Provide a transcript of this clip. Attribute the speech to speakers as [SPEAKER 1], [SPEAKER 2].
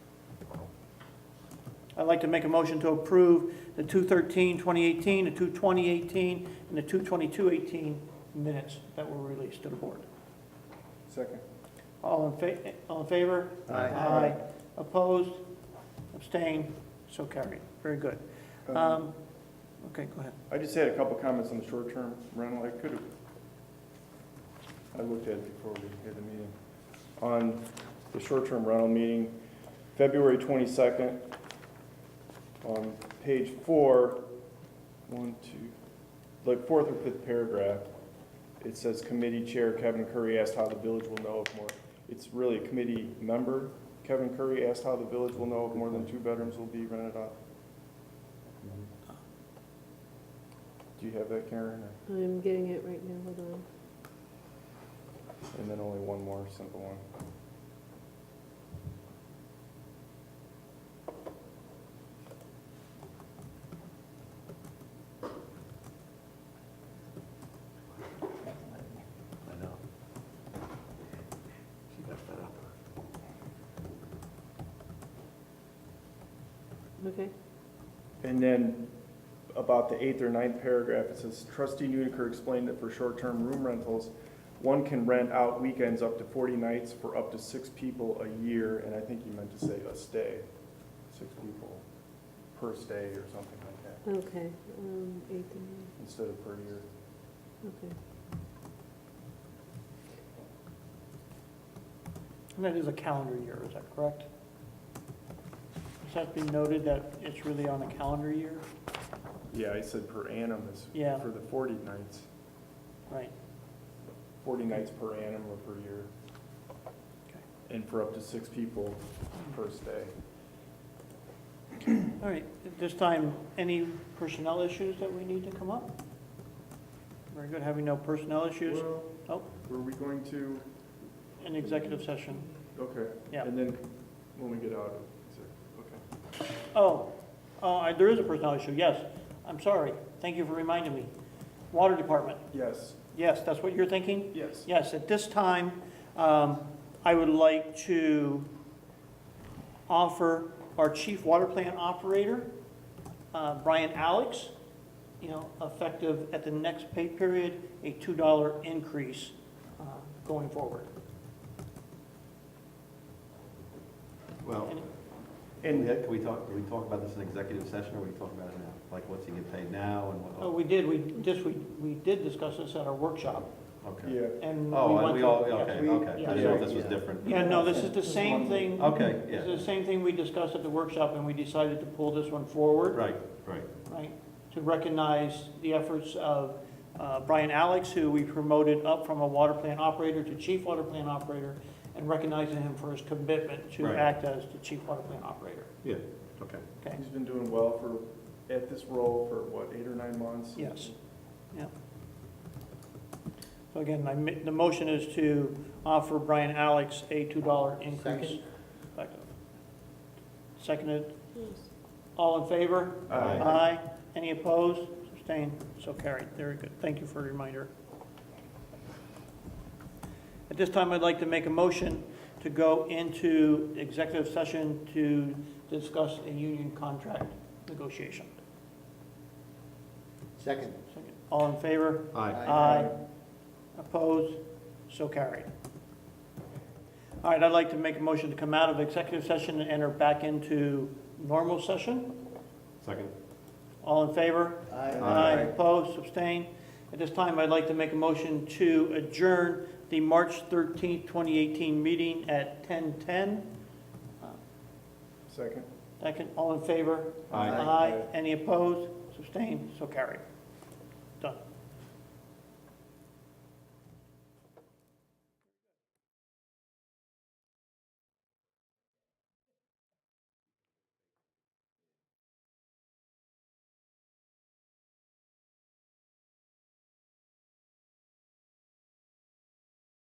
[SPEAKER 1] I'd like to make a motion to approve the 2/13/2018, the 2/2018, and the 2/22/18 minutes that were released to the board.
[SPEAKER 2] Second.
[SPEAKER 1] All in fa, all in favor?
[SPEAKER 2] Aye.
[SPEAKER 1] Opposed? Abstained? So carried. Very good.
[SPEAKER 2] Um,
[SPEAKER 1] Um, okay, go ahead.
[SPEAKER 2] I just had a couple comments on the short-term rental. I could have, I looked at it before we had the meeting. On the short-term rental meeting, February 22nd, on page four, one, two, like fourth or fifth paragraph, it says committee chair Kevin Curry asked how the village will know if more, it's really a committee member. Kevin Curry asked how the village will know if more than two bedrooms will be rented out. Do you have that, Karen? or-
[SPEAKER 3] I'm getting it right now, hold on.
[SPEAKER 2] And then only one more simple one.
[SPEAKER 4] I know. She got fed up.
[SPEAKER 3] Okay,
[SPEAKER 2] And then about the eighth or ninth paragraph, it says trustee Nudiker explained that for short-term room rentals, one can rent out weekends up to forty nights for up to six people a year, and I think you meant to say a stay, six people per stay or something like that,
[SPEAKER 3] okay, um, eighth and ninth,
[SPEAKER 2] instead of per year.
[SPEAKER 3] okay.
[SPEAKER 1] And that is a calendar year, is that correct? Does that be noted that it's really on a calendar year?
[SPEAKER 2] Yeah, I said per annum is
[SPEAKER 1] Yeah.
[SPEAKER 2] for the forty nights,
[SPEAKER 1] Right.
[SPEAKER 2] forty nights per annum or per year. And for up to six people per stay.
[SPEAKER 1] All right, at this time, any personnel issues that we need to come up? Very good, having no personnel issues,
[SPEAKER 2] Well,
[SPEAKER 1] Oh.
[SPEAKER 2] Were we going to,
[SPEAKER 1] an executive session.
[SPEAKER 2] okay.
[SPEAKER 1] Yeah.
[SPEAKER 2] And then when we get out of, okay.
[SPEAKER 1] Oh, uh, I- there is a personnel issue, yes. I'm sorry, thank you for reminding me. Water Department,
[SPEAKER 2] Yes,
[SPEAKER 1] yes, that's what you're thinking?
[SPEAKER 2] yes.
[SPEAKER 1] Yes, at this time, um, I would like to offer our chief water plant operator, uh, Brian Alex, you know, effective at the next pay period, a $2 increase uh, going forward.
[SPEAKER 4] Well,
[SPEAKER 1] And-
[SPEAKER 4] can we,
[SPEAKER 2] And,
[SPEAKER 4] can we talk, do we talk about this in executive session, or we talk about it now? Like, what's he get paid now, and
[SPEAKER 1] Oh,
[SPEAKER 4] what,
[SPEAKER 1] we did, we just, we we did discuss this at our workshop,
[SPEAKER 4] okay.
[SPEAKER 2] yeah,
[SPEAKER 1] and we
[SPEAKER 4] Oh, and
[SPEAKER 1] went
[SPEAKER 4] we
[SPEAKER 1] through-
[SPEAKER 4] all,
[SPEAKER 1] yeah.
[SPEAKER 4] okay, okay, I didn't know if this was different.
[SPEAKER 1] Yeah, no, this is the same thing,
[SPEAKER 4] Okay,
[SPEAKER 1] this
[SPEAKER 4] yeah,
[SPEAKER 1] is the same thing we discussed at the workshop, and we decided to pull this one forward.
[SPEAKER 4] right, right,
[SPEAKER 1] right, to recognize the efforts of uh, Brian Alex, who we promoted up from a water plant operator to chief water plant operator, and recognizing him for his commitment to
[SPEAKER 4] Right.
[SPEAKER 1] act as the chief water plant operator.
[SPEAKER 4] yeah, okay.
[SPEAKER 1] Okay,
[SPEAKER 2] he's been doing well for, at this role for what, eight or nine months?
[SPEAKER 1] yes, yeah. So again, I mi- the motion is to offer Brian Alex a $2 increase.
[SPEAKER 5] Second.
[SPEAKER 1] Second. Seconded,
[SPEAKER 3] Yes.
[SPEAKER 1] all in favor?
[SPEAKER 4] Aye.
[SPEAKER 1] Aye. Any opposed? Abstained? So carried. Very good. Thank you for the reminder. At this time, I'd like to make a motion to go into executive session to discuss a union contract negotiation.
[SPEAKER 5] Second.
[SPEAKER 1] Second. All in favor?
[SPEAKER 4] Aye.
[SPEAKER 1] Opposed? So carried. All right, I'd like to make a motion to come out of executive session and enter back into normal session.
[SPEAKER 4] Second?
[SPEAKER 1] All in favor?
[SPEAKER 5] Aye.
[SPEAKER 1] Aye, opposed, abstained. At this time, I'd like to make a motion to adjourn the March 13th, 2018 meeting at 10:10.
[SPEAKER 2] Second?
[SPEAKER 1] Second, all in favor?
[SPEAKER 4] Aye.
[SPEAKER 1] Any opposed, abstained, so carried. Done.